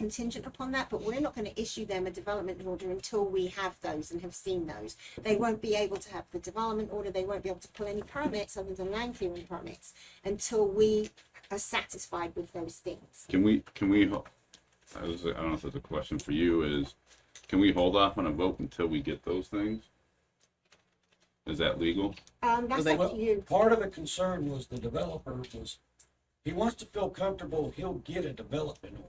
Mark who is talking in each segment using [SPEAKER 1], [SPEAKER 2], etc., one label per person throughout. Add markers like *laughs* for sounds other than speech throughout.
[SPEAKER 1] contingent upon that, but we're not going to issue them a development order until we have those and have seen those. They won't be able to have the development order, they won't be able to pull any permits other than land clearing permits until we are satisfied with those things.
[SPEAKER 2] Can we, can we, ho- I was- I don't know if that's a question for you, is, can we hold off on a vote until we get those things? Is that legal?
[SPEAKER 1] Um, that's
[SPEAKER 3] they-
[SPEAKER 1] up to you.
[SPEAKER 3] Part of the concern was the developer was, he wants to feel comfortable he'll get a development order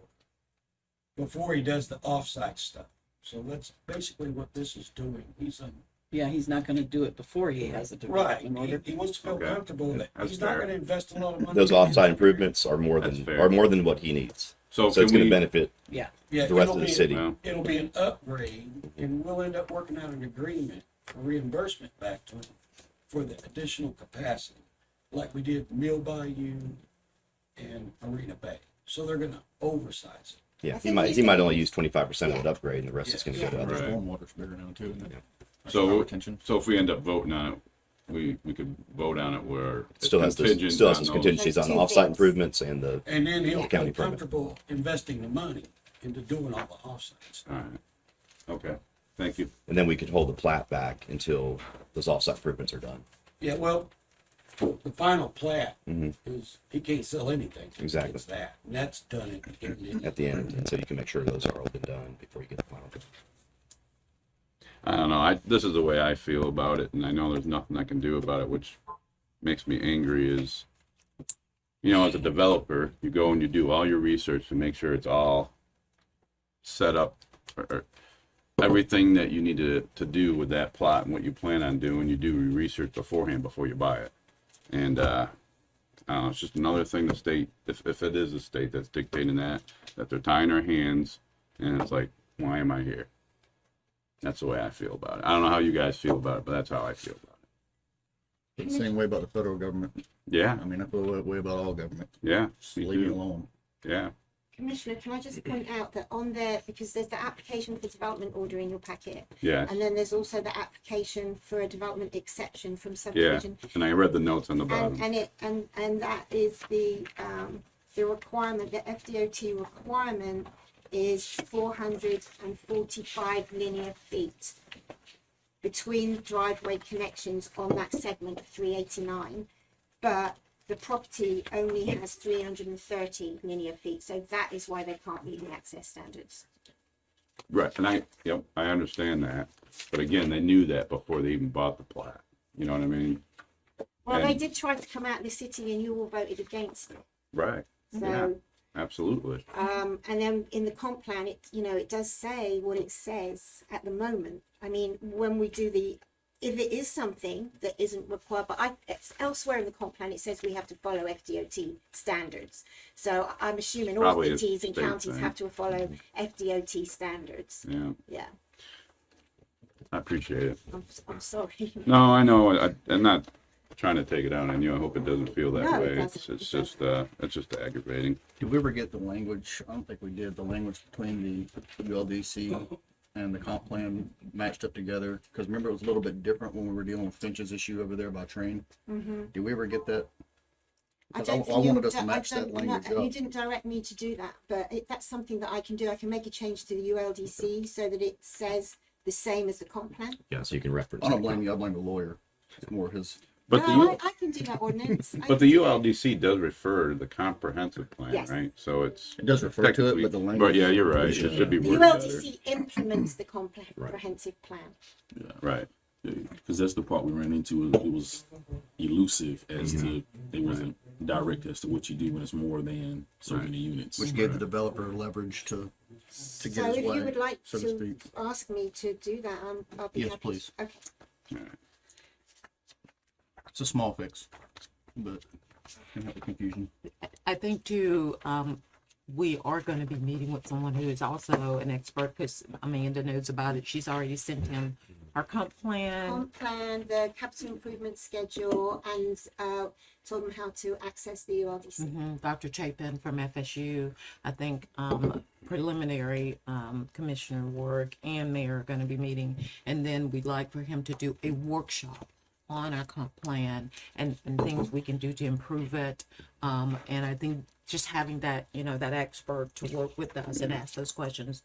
[SPEAKER 3] before he does the offsite stuff. So that's basically what this is doing. He's a.
[SPEAKER 4] Yeah, he's not gonna do it before he has a
[SPEAKER 3] Right,
[SPEAKER 4] development
[SPEAKER 3] he,
[SPEAKER 4] order.
[SPEAKER 3] he wants to feel
[SPEAKER 2] Okay.
[SPEAKER 3] comfortable that
[SPEAKER 2] That's
[SPEAKER 3] he's not
[SPEAKER 2] fair.
[SPEAKER 3] gonna invest a lot of money.
[SPEAKER 5] Those offsite improvements are more
[SPEAKER 2] That's
[SPEAKER 5] than
[SPEAKER 2] fair.
[SPEAKER 5] are more than what he needs.
[SPEAKER 2] So
[SPEAKER 5] So
[SPEAKER 2] can
[SPEAKER 5] it's going to
[SPEAKER 2] we,
[SPEAKER 5] benefit
[SPEAKER 4] Yeah,
[SPEAKER 3] Yeah,
[SPEAKER 5] the rest
[SPEAKER 3] it'll
[SPEAKER 5] of the
[SPEAKER 3] be-
[SPEAKER 5] city.
[SPEAKER 2] well,
[SPEAKER 3] It'll be an upgrade and we'll end up working out an agreement for reimbursement back to him for the additional capacity, like we did Mill Bayou and Arena Bay. So they're gonna oversize it.
[SPEAKER 1] I
[SPEAKER 5] Yeah, he
[SPEAKER 1] think
[SPEAKER 5] might
[SPEAKER 1] you
[SPEAKER 5] he might
[SPEAKER 1] can-
[SPEAKER 5] only use twenty five percent of that upgrade, and the rest is going to go to
[SPEAKER 2] Yeah.
[SPEAKER 5] other.
[SPEAKER 2] Right.
[SPEAKER 6] Stormwater's bigger now too, isn't it? That's
[SPEAKER 2] So-
[SPEAKER 6] our Attention.
[SPEAKER 2] so if we end up voting on it, we, we could vote on it where. it's
[SPEAKER 5] Still has those
[SPEAKER 2] contingent
[SPEAKER 5] still has
[SPEAKER 2] on
[SPEAKER 5] those
[SPEAKER 2] those-
[SPEAKER 5] contingencies on the
[SPEAKER 1] Those two
[SPEAKER 5] offsite
[SPEAKER 1] things.
[SPEAKER 5] improvements and the
[SPEAKER 3] And then he'll
[SPEAKER 5] County
[SPEAKER 3] feel
[SPEAKER 5] permit.
[SPEAKER 3] comfortable investing the money into doing all the offsites.
[SPEAKER 2] All right, okay, thank you.
[SPEAKER 5] and then we could hold the plat back until those offsite improvements are done.
[SPEAKER 3] Yeah, well, the final plat
[SPEAKER 5] Mhm.
[SPEAKER 3] is, he can't sell anything. till he
[SPEAKER 5] Exactly.
[SPEAKER 3] gets that, and that's done at the end.
[SPEAKER 5] at the end, and so you can make sure those are all been done before you get the final.
[SPEAKER 2] I don't know. I this is the way I feel about it, and I know there's nothing I can do about it, which makes me angry. Is you know, as a developer, you go and you do all your research to make sure it's all set up, or, or everything that you need to to do with that plot and what you plan on doing. You do your research beforehand before you buy it, and uh, I don't know, it's just another thing the state, if if it is the state that's dictating that, that they're tying our hands, and it's like, why am I here? That's the way I feel about it. I don't know how you guys feel about it, but that's how I feel about it.
[SPEAKER 6] It's the Same way about the federal government.
[SPEAKER 2] Yeah,
[SPEAKER 6] I mean, I feel that way about all government.
[SPEAKER 2] yeah,
[SPEAKER 6] Just
[SPEAKER 2] Me
[SPEAKER 6] leave it
[SPEAKER 2] too.
[SPEAKER 6] alone.
[SPEAKER 2] yeah.
[SPEAKER 1] Commissioner, can I just point out that on there, because there's the application for development order in your packet,
[SPEAKER 2] Yeah,
[SPEAKER 1] and then there's also the application for a development exception from subdivision.
[SPEAKER 2] and I read the notes on the bottom.
[SPEAKER 1] And, and it, and, and that is the, um, the requirement, the FDOT requirement is four hundred and forty-five linear feet between driveway connections on that segment of three eighty-nine. But the property only has three hundred and thirty linear feet, so that is why they can't meet the access standards.
[SPEAKER 2] Right, and I, yep, I understand that. But again, they knew that before they even bought the plat. You know what I mean?
[SPEAKER 1] Well, they
[SPEAKER 2] And-
[SPEAKER 1] did try to come out of the city and you all voted against it,
[SPEAKER 2] Right, Yeah.
[SPEAKER 1] so.
[SPEAKER 2] absolutely.
[SPEAKER 1] Um, and then in the comp plan, it, you know, it does say what it says at the moment. I mean, when we do the, if it is something that isn't required, but I, it's elsewhere in the comp plan, it says we have to follow FDOT standards. So I'm assuming all
[SPEAKER 2] Probably a
[SPEAKER 1] cities and
[SPEAKER 2] state
[SPEAKER 1] counties
[SPEAKER 2] thing. Mm-hmm.
[SPEAKER 1] have to follow FDOT standards.
[SPEAKER 2] Yeah,
[SPEAKER 1] Yeah,
[SPEAKER 2] I appreciate it.
[SPEAKER 1] I'm, I'm sorry. *laughs*
[SPEAKER 2] No, I know. I, I'm not trying to take it out on you. I hope it doesn't feel that
[SPEAKER 1] No, it
[SPEAKER 2] way. It's,
[SPEAKER 1] doesn't.
[SPEAKER 2] it's just, uh, it's just aggravating.
[SPEAKER 6] Did we ever get the language? I don't think we did. The language between the WLDC and the comp plan matched up together. Because remember, it was a little bit different when we were dealing with Finch's issue over there by train.
[SPEAKER 1] hmm
[SPEAKER 6] Did we ever get that?
[SPEAKER 1] I
[SPEAKER 6] Because
[SPEAKER 1] don't
[SPEAKER 6] I- I
[SPEAKER 1] think you,
[SPEAKER 6] wanted us to
[SPEAKER 1] di- I
[SPEAKER 6] match that
[SPEAKER 1] don't, no,
[SPEAKER 6] language
[SPEAKER 1] you
[SPEAKER 6] up.
[SPEAKER 1] didn't direct me to do that, but it, that's something that I can do. I can make a change to the ULDC so that it says the same as the comp plan.
[SPEAKER 5] Yeah, so you can reference.
[SPEAKER 6] I don't
[SPEAKER 5] it.
[SPEAKER 6] blame you. I blame the lawyer. It's more his.
[SPEAKER 2] But the,
[SPEAKER 1] no,
[SPEAKER 2] U-
[SPEAKER 1] I, I can do that ordinance. I
[SPEAKER 2] but the ULDC does refer to the comprehensive plan,
[SPEAKER 1] Yes.
[SPEAKER 2] right? So it's.
[SPEAKER 6] It does refer to it,
[SPEAKER 2] Technically-
[SPEAKER 6] but the language.
[SPEAKER 2] But yeah, you're right. It should be
[SPEAKER 1] the
[SPEAKER 2] worded better.
[SPEAKER 1] ULDC implements the comprehensive plan.
[SPEAKER 2] Right.
[SPEAKER 7] because that's the part we ran into. It was elusive as to they wasn't direct as to what you do when it's more than so
[SPEAKER 2] Right.
[SPEAKER 7] many units.
[SPEAKER 6] Which gave the developer leverage to, to
[SPEAKER 1] So
[SPEAKER 6] get his
[SPEAKER 1] if
[SPEAKER 6] way,
[SPEAKER 1] you would like
[SPEAKER 6] so to
[SPEAKER 1] to
[SPEAKER 6] speak.
[SPEAKER 1] ask me to do that, I'm, I'll be
[SPEAKER 6] Yes,
[SPEAKER 1] happy.
[SPEAKER 6] please.
[SPEAKER 1] to- Okay.
[SPEAKER 6] It's a small fix, but can help with confusion.
[SPEAKER 8] I think too, um, we are gonna be meeting with someone who is also an expert, because Amanda knows about it. She's already sent him our comp plan.
[SPEAKER 1] Comp plan, the capital improvement schedule, and uh, told them how to access the ULDC.
[SPEAKER 8] Mhm, Dr. Chapin from FSU, I think, um, preliminary, um, Commissioner Work and Mayor are gonna be meeting. And then we'd like for him to do a workshop on our comp plan and, and things we can do to improve it. Um, and I think just having that, you know, that expert to work with us and ask those questions